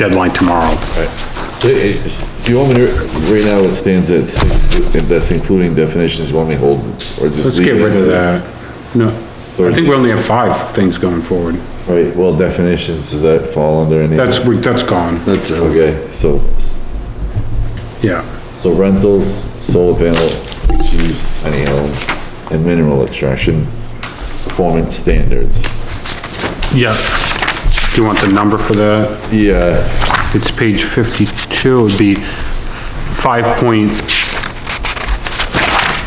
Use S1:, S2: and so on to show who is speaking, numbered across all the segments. S1: deadline tomorrow.
S2: So, eh, Do you want me to, right now it stands at six, and that's including definitions, you want me to hold, or just?
S1: Let's
S2: leave
S1: get
S2: it
S1: rid of
S2: as-
S1: that. No, I think we only have five things going forward.
S2: Right, well, definitions, does that fall under any?
S1: That's, we- that's gone,
S3: That's, uh,
S2: Okay, so,
S1: yeah.
S2: so rentals, solar panel, each use, tiny home, and mineral extraction, performance standards.
S1: Yeah. Do you want the number for that?
S2: Yeah,
S1: It's page fifty-two, it'd be five point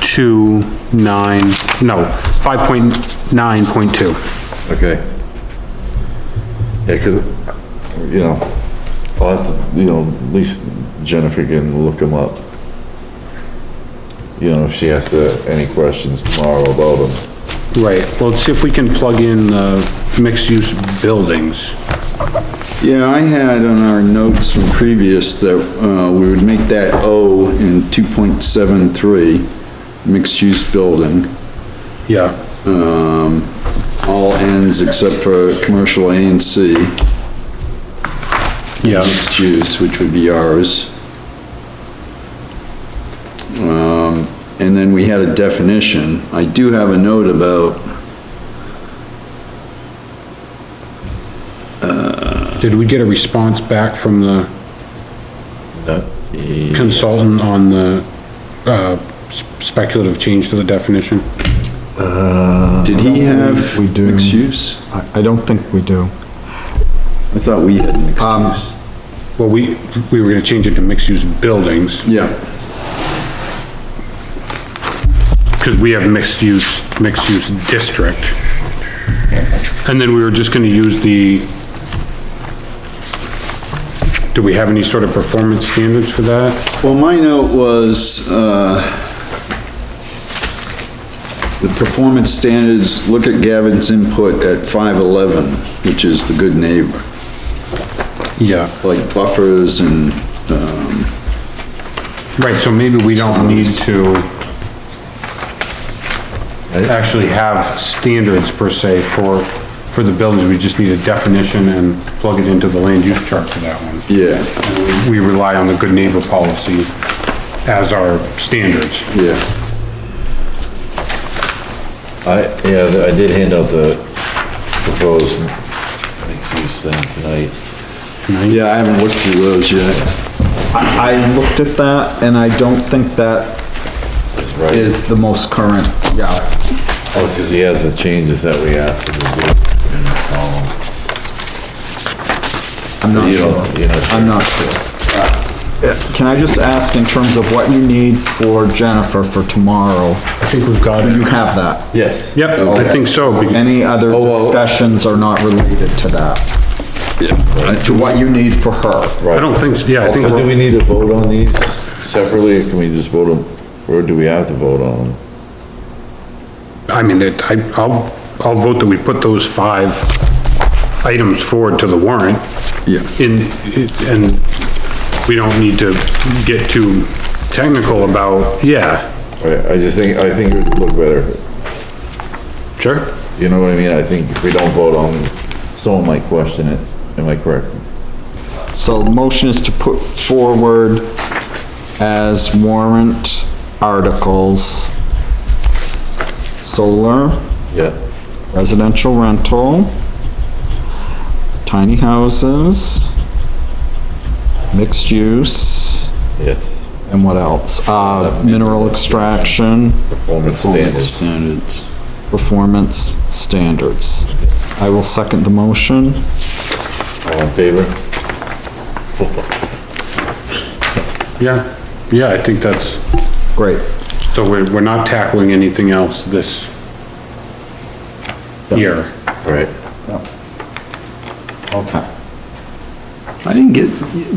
S1: two nine, no, five point nine point two.
S2: Okay. Yeah, 'cause, you know, I'll have to, you know, at least Jennifer can look them up. You know, if she has to, any questions tomorrow about them.
S1: Right, well, let's see if we can plug in the mixed-use buildings.
S3: yeah, I had on our notes from previous that, uh, we would make that O in two point seven three, mixed-use building,
S1: Yeah,
S3: all ends except for commercial A and C,
S1: yeah,
S3: mixed use, which would be ours. Um, and then we had a definition. I do have a note about
S1: did we get a response back from the consultant on the, uh, s- speculative change to the definition?
S3: Did he have
S4: We do.
S3: mixed use?
S4: I, I don't think we do.
S3: I thought we had mixed
S4: Um,
S3: use.
S1: Well, we, we were gonna change it to mixed-use buildings,
S3: Yeah,
S1: because we have mixed-use, mixed-use district. And then we were just gonna use the, do we have any sort of performance standards for that?
S3: well, my note was, uh, the performance standards, look at Gavin's input at five eleven, which is the good neighbor,
S1: Yeah.
S3: like buffers and,
S1: Right, so maybe we don't need to actually have standards per se for, for the buildings, we just need a definition and plug it into the land use chart for that one.
S3: yeah,
S1: We rely on the good neighbor policy as our standards.
S3: yeah.
S2: I, yeah, I did hand out the proposed mixed use thing tonight.
S3: Yeah, I haven't looked through those yet.
S4: I, I looked at that and I don't think that
S2: right.
S4: is the most current, yeah.
S2: Oh, 'cause he has the changes that we asked him to do.
S4: I'm not
S2: You
S4: sure.
S2: don't, you're not sure.
S4: I'm not sure. Uh, Can I just ask in terms of what you need for Jennifer for tomorrow?
S1: I think we've got
S4: Do you have that?
S2: Yes.
S1: Yep, I think so, be-
S4: Any other
S2: Oh, well-
S4: discussions are not related to that, to what you need for her?
S1: I don't think, so. yeah, I think,
S2: Do we
S1: we're-
S2: need to vote on these separately, or can we just vote them, or do we have to vote on them?
S1: I mean, that, I, I'll, I'll vote that we put those five items forward to the warrant.
S3: Yeah.
S1: in, and we don't need to get too technical about, yeah,
S2: I, I just think, I think it would look better,
S1: sure.
S2: you know what I mean? I think if we don't vote on, them, someone might question it, am I correct?
S4: So motion is to put forward as warrant articles. Solar,
S2: Yeah.
S4: residential rental, tiny houses, mixed use,
S2: Yes.
S4: and what else? Uh, mineral extraction,
S2: Performance standards.
S3: Standards.
S4: performance standards. I will second the motion.
S2: All in favor?
S1: Yeah, yeah, I think that's,
S4: Great.
S1: so we're, we're not tackling anything else this year.
S2: All right.
S4: Okay.
S3: I didn't get,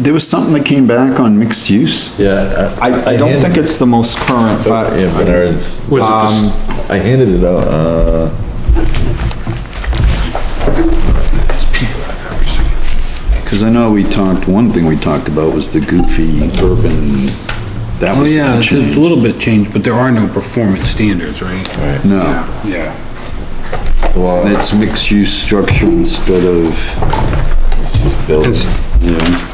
S3: there was something that came back on mixed use?
S2: Yeah.
S4: I, I don't think it's the most current, but
S2: Yeah, Bernard's,
S1: Was
S5: Um,
S1: it this-
S2: I handed it out, uh,
S3: Because I know we talked, one thing we talked about was the goofy urban, that
S5: Oh,
S3: was
S5: yeah,
S3: gonna
S5: it's it's
S3: change.
S5: a little bit changed, but there are no performance standards, right?
S3: No,
S1: Yeah.
S2: well,
S3: it's mixed use structure instead of
S2: building.
S1: Cons-
S3: yeah.